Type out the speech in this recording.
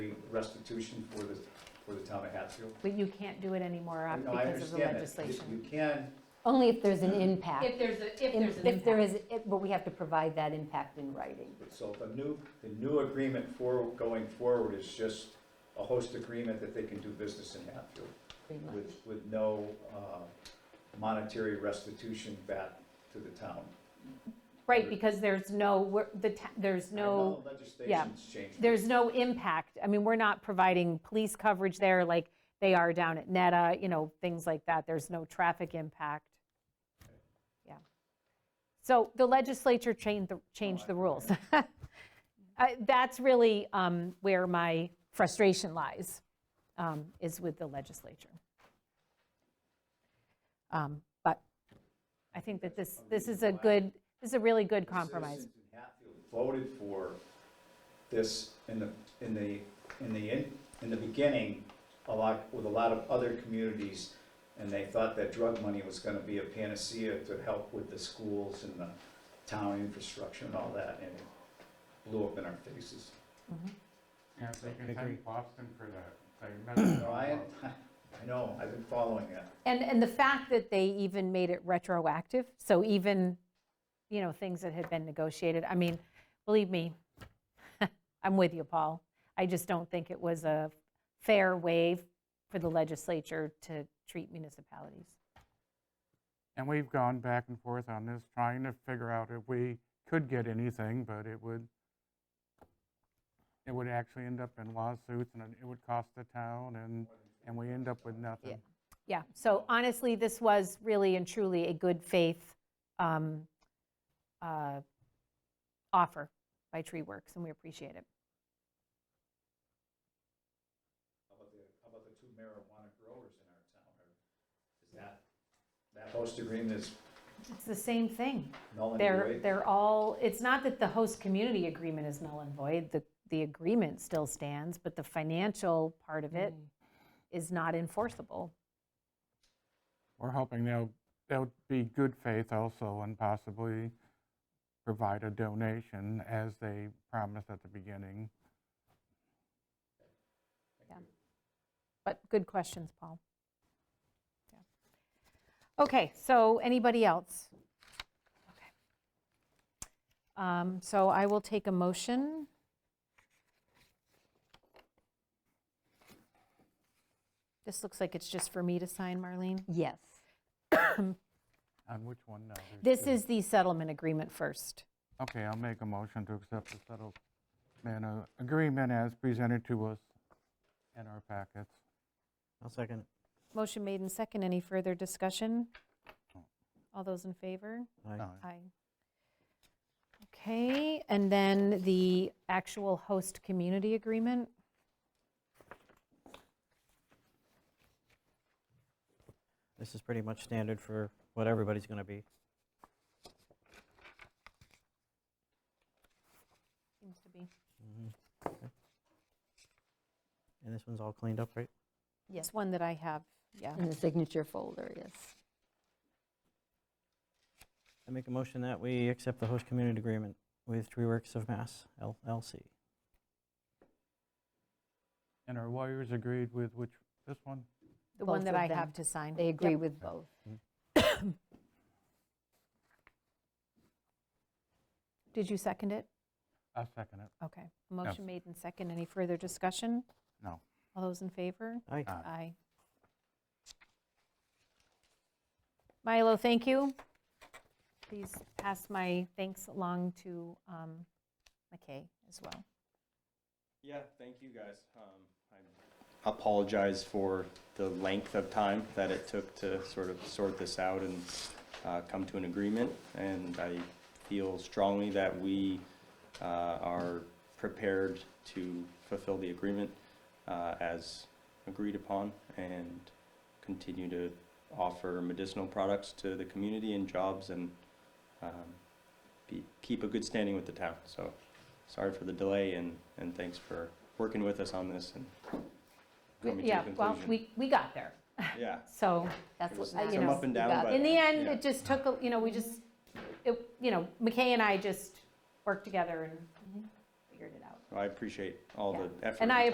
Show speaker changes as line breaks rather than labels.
restitution for the, for the town of Hatfield.
But you can't do it anymore uh,
No, I
because of the
understand that. You
legislation.
you can,
Only if there's an impact.
Hmm. If there's a, if
In-
there's an
If there
impact.
is, if- but we have to provide that impact in writing.
so the new, the new agreement for, going forward is just a host agreement that they can do business in Hatfield
pretty much.
with, with no uh, monetary restitution back to the town.
Right, because there's no, we're- the ta- there's no.
I know Legislation's changed.
there's no impact. I mean, we're not providing police coverage there like they are down at Neta, you know, things like that. There's no traffic impact. Yeah. So the legislature changed, the- changed the rules. I- That's really um, where my frustration lies, um, is with the legislature. Um, But I think that this, this is a good, this is a really good compromise.
Citizens in Hatfield Voted for this in the, in the, in the, in- in the beginning, a lot, with a lot of other communities, and they thought that drug money was gonna be a panacea to help with the schools and the town infrastructure and all that, and it blew up in our faces.
Yeah, they can thank Boston for that. They messed it all
Brian,
up.
I know, I've been following that.
And, and the fact that they even made it retroactive, so even, you know, things that had been negotiated, I mean, believe me, I'm with you, Paul. I just don't think it was a fair way for the legislature to treat municipalities.
And we've gone back and forth on this, trying to figure out if we could get anything, but it would, it would actually end up in lawsuits and it would cost the town and, and we end up with nothing.
Yeah, so honestly, this was really and truly a good faith um, uh, offer by Tree Works, and we appreciate it.
How about the, how about the two marijuana growers in our town? Is that, that host agreement is
It's the same thing.
null and
They're,
void?
they're all, it's not that the host community agreement is null and void, the, the agreement still stands, but the financial part of it is not enforceable.
We're hoping they'll, they'll be good faith also and possibly provide a donation as they promised at the beginning.
But good questions, Paul. Yeah. Okay, so anybody else? Okay. Um, So I will take a motion. This looks like it's just for me to sign, Marlene.
Yes.
On which one now? There's
This
two.
is the settlement agreement first.
Okay, I'll make a motion to accept the settlement uh, agreement as presented to us in our packets.
I'll second it.
Motion made and second. Any further discussion? All those in favor?
Aye.
Aye.
Aye. Okay, and then the actual host community agreement.
This is pretty much standard for what everybody's going to be.
Seems to be.
And this one's all cleaned up, right?
It's one that I have, yeah.
In the signature folder, yes.
I make a motion that we accept the host community agreement with Tree Works of Mass LLC.
And our lawyers agreed with which, this one?
The one
Both
that
of
I
them.
have to sign.
They agree
Yep.
with both.
Did you second it?
I'll second it.
Okay. Motion made and second. Any further discussion?
No.
All those in favor?
Aye.
Aye.
Aye. Milo, thank you. Please pass my thanks along to um, McKay as well.
Yeah, thank you, guys. Um, I Apologize for the length of time that it took to sort of sort this out and uh, come to an agreement. And I feel strongly that we uh, are prepared to fulfill the agreement uh, as agreed upon and continue to offer medicinal products to the community and jobs and um, be- keep a good standing with the town. So sorry for the delay and, and thanks for working with us on this and coming to a
Yeah, well,
conclusion.
we, we got there.
Yeah,
So uh,
That's what,
It was
I- you
some
know,
up and
we
down,
got
but-
in the end,
Yeah.
it just took, a- you know, we just, it- you know, McKay and I just worked together and figured it out.
I appreciate all
Yeah.
the effort.
And I
time